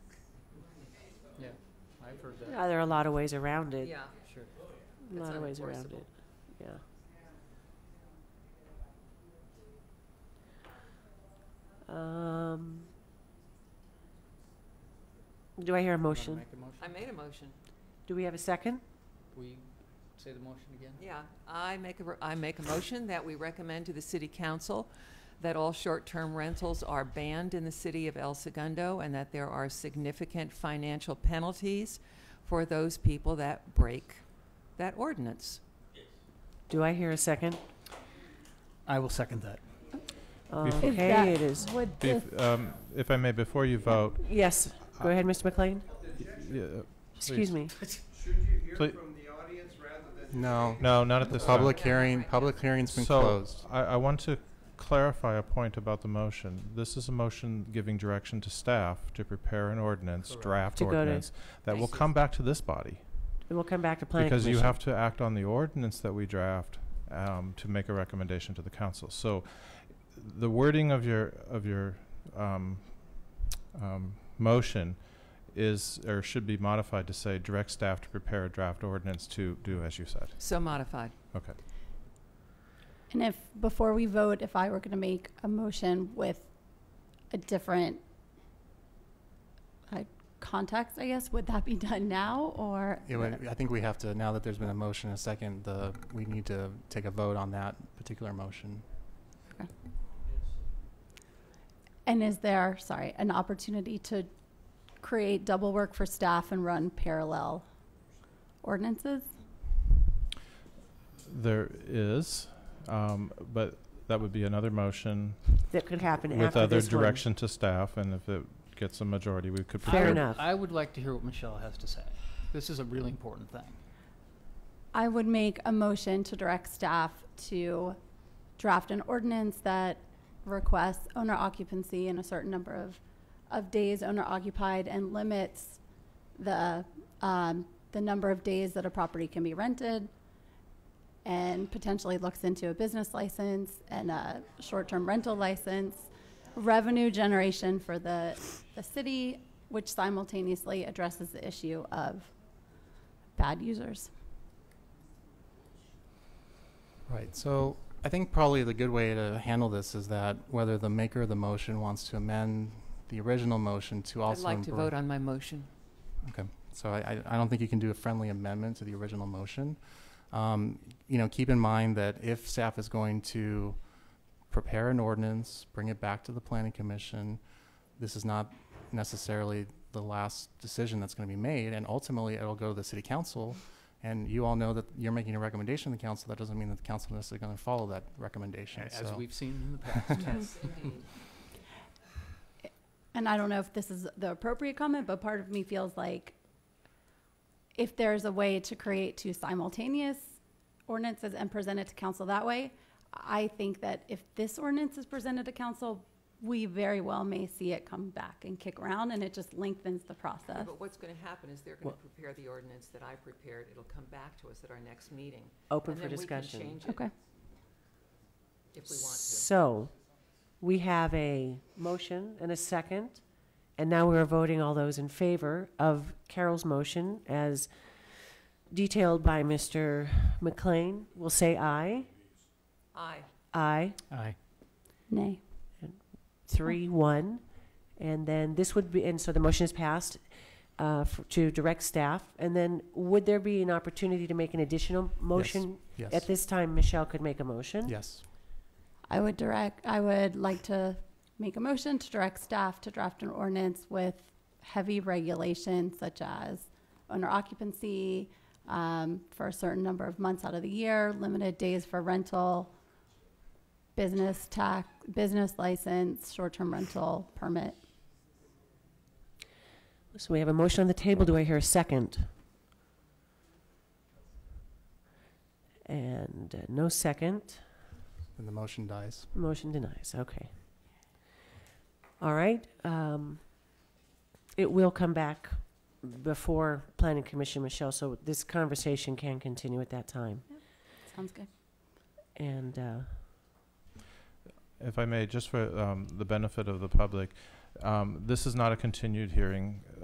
I've heard that, Yeah, there are a lot of ways around it. Yeah, sure. A it's lot of ways around unenforceable. it. Yeah. Um, do I hear a Wanna motion? Make a I motion? made a motion. Do we have a second? Will you say the motion again? Yeah, I make a, I make a motion that we recommend to the city council that all short-term rentals are banned in the city of El Segundo and that there are significant financial penalties for those people that break that ordinance. Do I hear a second? I will second that. If Okay, that it is. Would Bef- this- um, If I may, before you vote, Yes, go Uh, ahead, Mr. McLean. yeah, Excuse me. please, No. no, not at this time. Public hearing, public hearing's been So, closed. I, I want to clarify a point about the motion. This is a motion giving direction to staff to prepare an ordinance, Correct. draft To go to- ordinance, that will Thank you. come back to this body. And we'll come back to planning Because commission. you have to act on the ordinance that we draft, um, to make a recommendation to the council. So, the wording of your, of your, um, um, motion is, or should be modified to say, direct staff to prepare a draft ordinance to do as you said. So modified. Okay. and if, before we vote, if I were going to make a motion with a different uh, context, I guess, would that be done now or? It would, I think we have to, now that there's been a motion and a second, the, we need to take a vote on that particular motion. And is there, sorry, an opportunity to create double work for staff and run parallel ordinances? There is, um, but that would be another motion That could happen with after other this one. direction to staff, and if it gets a majority, we could. Fair prepare- I- enough. I would like to hear what Michelle has to say. This is a really important thing. I would make a motion to direct staff to draft an ordinance that requests owner occupancy in a certain number of, of days owner occupied and limits the, um, the number of days that a property can be rented and potentially looks into a business license and a short-term rental license, revenue generation for the, the city, which simultaneously addresses the issue of bad users. Right, so I think probably the good way to handle this is that whether the maker of the motion wants to amend the original motion to I'd also. like to embr- vote on my motion. So I, I- I don't think you can do a friendly amendment to the original motion. Um, you know, keep in mind that if staff is going to prepare an ordinance, bring it back to the planning commission, this is not necessarily the last decision that's gonna be made, and ultimately it'll go to the city council. And you all know that you're making a recommendation to the council, that doesn't mean that the council necessarily gonna follow that recommendation, a- so. As we've seen in the past. and I don't know if this is the appropriate comment, but part of me feels like if there's a way to create two simultaneous ordinances and present it to council that way, I think that if this ordinance is presented to council, we very well may see it come back and kick around, and it just lengthens the Uh, process. But what's going to happen is they're going to prepare the ordinance that I prepared. It'll come back to us at our next meeting. Open and for then we can discussion. change it Okay. If we want to. So, we have a motion and a second, and now we're voting all those in favor of Carol's motion as detailed by Mr. McLean. We'll say aye. Aye. Aye, Aye. Nay. three, one. And then this would be, and so the motion is passed uh, f- to direct staff. And then would there be an opportunity to make an additional motion? At Yes, this time, Michelle could make a motion. yes. I would direct, I would like to make a motion to direct staff to draft an ordinance with heavy regulations such as owner occupancy um, for a certain number of months out of the year, limited days for rental, business tax, business license, short-term rental permit. So we have a motion on the table. Do I hear a second? And uh, no second. And the motion dies. Motion denies. Okay. All right. um, It will come back before Planning Commission, Michelle, so this conversation can continue at that time. Sounds good. And uh, If I may, just for um, the benefit of the public, um, this is not a continued hearing.